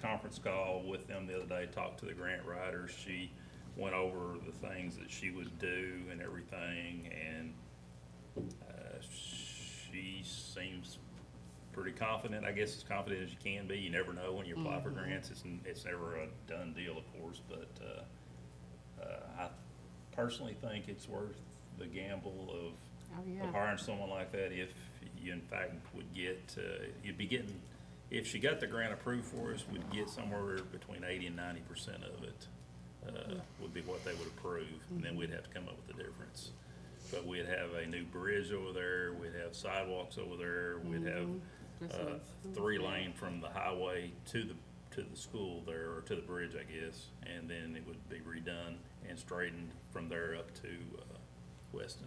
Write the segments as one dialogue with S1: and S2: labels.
S1: conference call with them the other day, talked to the grant writer. She went over the things that she would do and everything, and uh, she seems pretty confident, I guess as confident as you can be. You never know when you apply for grants. It's, n- it's never a done deal, of course, but, uh, uh, I personally think it's worth the gamble of
S2: Oh,
S1: of
S2: yeah.
S1: hiring someone like that if you in fact would get, uh, you'd be getting, if she got the grant approved for us, we'd get somewhere between eighty and ninety percent of it, uh, would be what they would approve, and then we'd have to come up with the difference. But we'd have a new bridge over there, we'd have sidewalks over there, we'd have,
S2: That's
S1: uh,
S2: what it's-
S1: three lane from the highway to the, to the school there, or to the bridge, I guess, and then it would be redone and straightened from there up to, uh, Weston.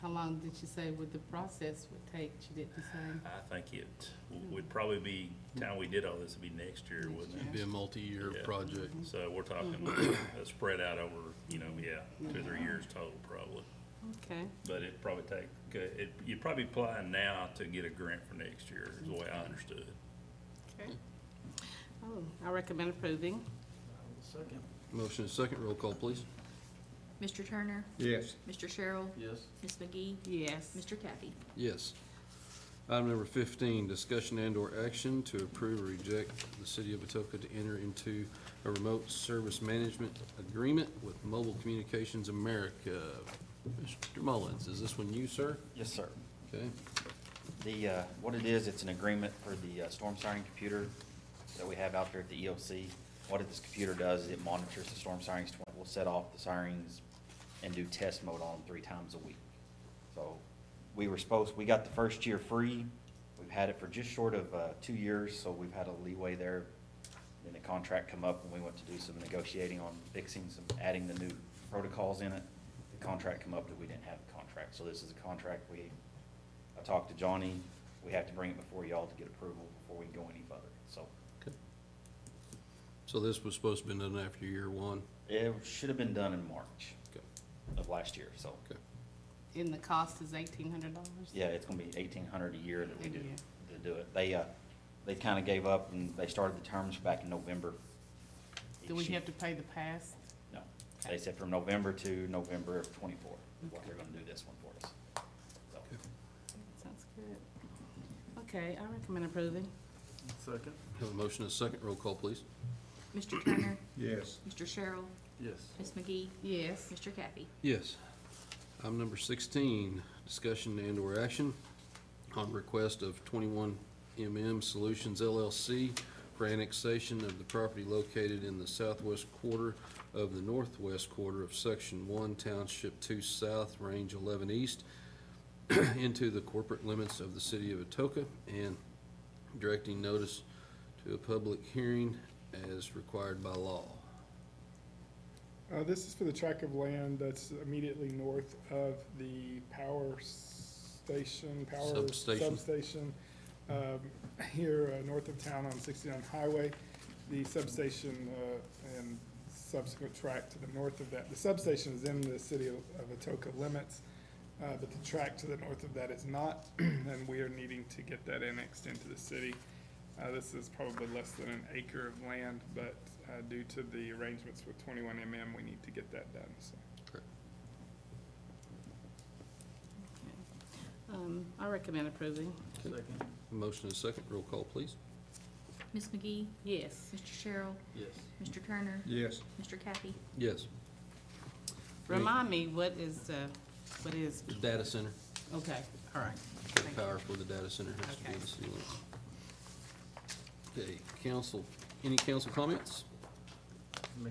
S2: How long did she say would the process would take? She didn't say.
S1: I think it w- would probably be, time we did all this would be next year, wouldn't
S2: Next
S1: it?
S2: year.
S3: Be a multi-year
S1: Yeah.
S3: project.
S1: So we're talking, uh, spread out over, you know, yeah, two, or three years total probably.
S2: Okay,
S1: But it'd probably take, uh, it, you'd probably apply now to get a grant for next year, is the way I understood.
S2: okay. Oh, I recommend approving.
S3: Motion is second, roll call, please.
S4: Mr. Turner,
S5: Yes.
S4: Mr. Sherrill,
S5: Yes.
S4: Ms. McGee,
S2: Yes.
S4: Mr. Kathy.
S3: Yes. Item number fifteen, discussion and/or action to approve or reject the city of Etoka to enter into a remote service management agreement with Mobile Communications America. Mr. Mullins, is this one you, sir?
S6: Yes, sir.
S3: Okay,
S6: The, uh, what it is, it's an agreement for the uh, storm siren computer that we have out there at the EOC. What this computer does, is it monitors the storm sirens, twen- will set off the sirens and do test mode on them three times a week. So we were supposed, we got the first year free. We've had it for just short of uh, two years, so we've had a leeway there. Then the contract come up and we went to do some negotiating on fixing some, adding the new protocols in it. The contract come up that we didn't have a contract, so this is a contract we I talked to Johnny, we have to bring it before y'all to get approval before we can go any further, so.
S3: okay. So this was supposed to be done after year one?
S6: It should have been done in March
S3: Okay,
S6: of last year, so,
S3: okay.
S2: And the cost is eighteen hundred dollars?
S6: yeah, it's gonna be eighteen hundred a year that we do,
S2: Yeah.
S6: to do it. They, uh, they kinda gave up and they started the terms back in November.
S2: Do we
S6: Each year.
S2: have to pay the past?
S6: No, they said from November to November of twenty-four, is what they're gonna do this one for us. So,
S2: Sounds good. Okay, I recommend approving.
S5: Second?
S3: Have a motion is second, roll call, please.
S4: Mr. Turner,
S5: Yes.
S4: Mr. Sherrill,
S5: Yes.
S4: Ms. McGee,
S2: Yes.
S4: Mr. Kathy.
S3: Yes. Item number sixteen, discussion and/or action on request of twenty-one MM Solutions LLC for annexation of the property located in the southwest quarter of the northwest quarter of Section One Township Two South, Range Eleven East, into the corporate limits of the city of Atoka, and directing notice to a public hearing as required by law.
S7: Uh, this is for the tract of land that's immediately north of the power station, power
S3: Substation.
S7: substation, um, here, uh, north of town on sixty-nine highway. The substation, uh, and subsequent tract to the north of that, the substation is in the city of of Atoka limits, uh, but the tract to the north of that is not, and we are needing to get that annexed into the city. Uh, This is probably less than an acre of land, but uh, due to the arrangements with 21MM, we need to get that done, so.
S3: Correct.
S2: Um, I recommend approving.
S5: Second?
S3: Motion is second, roll call, please.
S4: Ms. McGee,
S2: Yes.
S4: Mr. Sherrill,
S5: Yes.
S4: Mr. Turner,
S5: Yes.
S4: Mr. Kathy.
S3: Yes.
S2: Remind me, what is, uh, what is,
S3: Data center,
S2: okay, all right. Thank you.
S3: power for the data center has to be in the
S2: Okay.
S3: city limits. Okay, council, any council comments?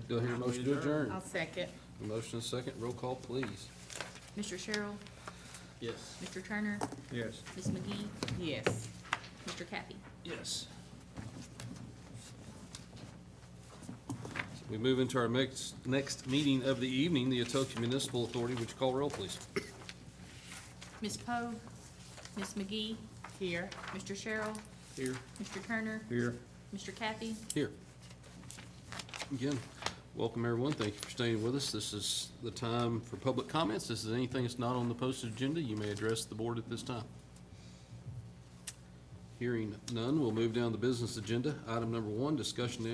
S3: Do I hear a motion to adjourn?
S2: I'll second.
S3: A motion and second, roll call, please.
S4: Mr. Sherrill,
S5: Yes.
S4: Mr. Turner,
S5: Yes.
S4: Ms. McGee,
S2: Yes.
S4: Mr. Kathy.
S3: Yes. We move into our next, next meeting of the evening, the Etoka Municipal Authority, would you call roll, please?
S4: Ms. Poe, Ms. McGee,
S2: Here.
S4: Mr. Sherrill,
S5: Here.
S4: Mr. Turner,
S5: Here.
S4: Mr. Kathy.
S3: Here. Again, welcome everyone, thank you for staying with us. This is the time for public comments. This is anything that's not on the posted agenda, you may address the board at this time. Hearing none, we'll move down the business agenda. Item number one, discussion and